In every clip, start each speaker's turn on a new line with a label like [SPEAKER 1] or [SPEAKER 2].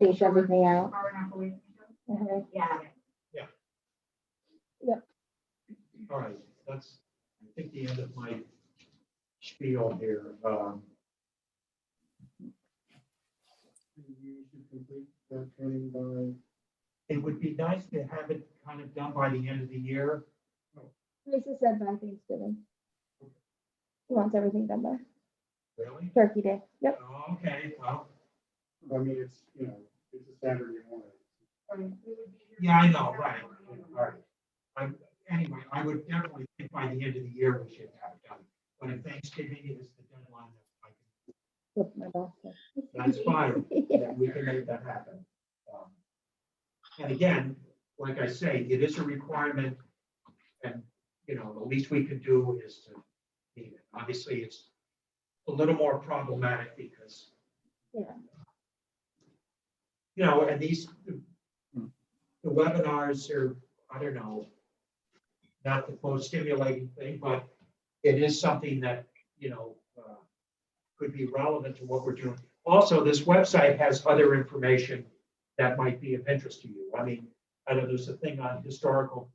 [SPEAKER 1] space everything out.
[SPEAKER 2] Far enough away from each other?
[SPEAKER 1] Mhm.
[SPEAKER 2] Yeah.
[SPEAKER 3] All right, that's, I think, the end of my spiel here. Um,
[SPEAKER 4] You should complete that training by,
[SPEAKER 3] It would be nice to have it kind of done by the end of the year.
[SPEAKER 1] Lisa said by Thanksgiving. Mm-hmm. She wants everything done by
[SPEAKER 3] Really? Oh,
[SPEAKER 1] Turkey Day. Yep.
[SPEAKER 3] Okay, well,
[SPEAKER 4] I mean, it's, you know, it's a Saturday morning.
[SPEAKER 2] I mean, we would be here-
[SPEAKER 3] Yeah, I know, right. All right. I, anyway, I would definitely think by the end of the year we should have it done. But if Thanksgiving is the deadline, I can
[SPEAKER 1] With my boss. so.
[SPEAKER 3] That's fine,
[SPEAKER 1] Yeah.
[SPEAKER 3] that we can make that happen. Um, And again, like I say, it is a requirement, and, you know, the least we can do is to meet it. Obviously, it's a little more problematic because,
[SPEAKER 1] Yeah.
[SPEAKER 3] you know, and these, the webinars are, I don't know, not the most stimulating thing, but it is something that, you know, uh, could be relevant to what we're doing. Also, this website has other information that might be of interest to you. I mean, I know there's a thing on historical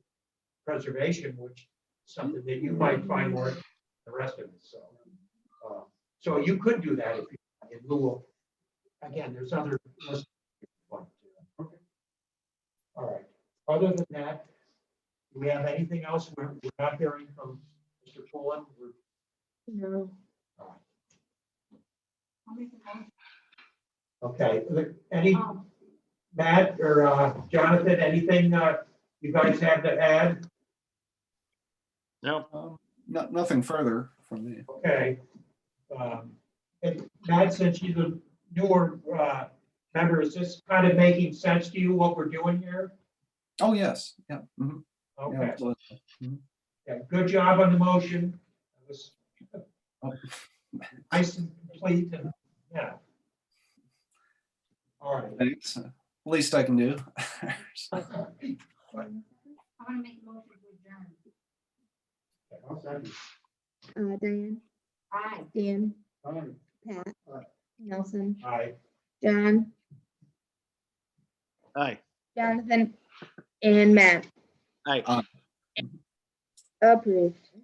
[SPEAKER 3] preservation, which is something that you might find more than the rest of it, so. uh, So you could do that if you, in lieu of, again, there's other. lists if you want to do that. All right, other than that, do we have anything else? We're we're not hearing from Mr. Pullen. We're
[SPEAKER 1] No.
[SPEAKER 2] I'll make a motion.
[SPEAKER 3] Okay, any,
[SPEAKER 2] Um,
[SPEAKER 3] Matt or uh, Jonathan, anything uh, you guys have to add?
[SPEAKER 5] No,
[SPEAKER 6] Um, No, nothing further from me.
[SPEAKER 3] Okay. Um, And Matt, since you're the newer uh, member, is this kind of making sense to you, what we're doing here?
[SPEAKER 6] Oh, yes, yeah. mhm, yeah,
[SPEAKER 3] Okay,
[SPEAKER 6] absolutely.
[SPEAKER 3] yeah, good job on the motion. It was
[SPEAKER 6] Oh.
[SPEAKER 3] Nice and complete and, yeah. All right.
[SPEAKER 6] Thanks. Least I can do.
[SPEAKER 2] I want to make a motion to adjourn.
[SPEAKER 4] I'll second.
[SPEAKER 1] Uh, Diane,
[SPEAKER 2] Aye.
[SPEAKER 1] Dan,
[SPEAKER 4] All right.
[SPEAKER 1] Pat,
[SPEAKER 4] Aye.
[SPEAKER 1] Nelson,
[SPEAKER 3] All right.
[SPEAKER 1] John,
[SPEAKER 5] aye,
[SPEAKER 1] Jonathan, and Matt.
[SPEAKER 5] aye.
[SPEAKER 1] Approved.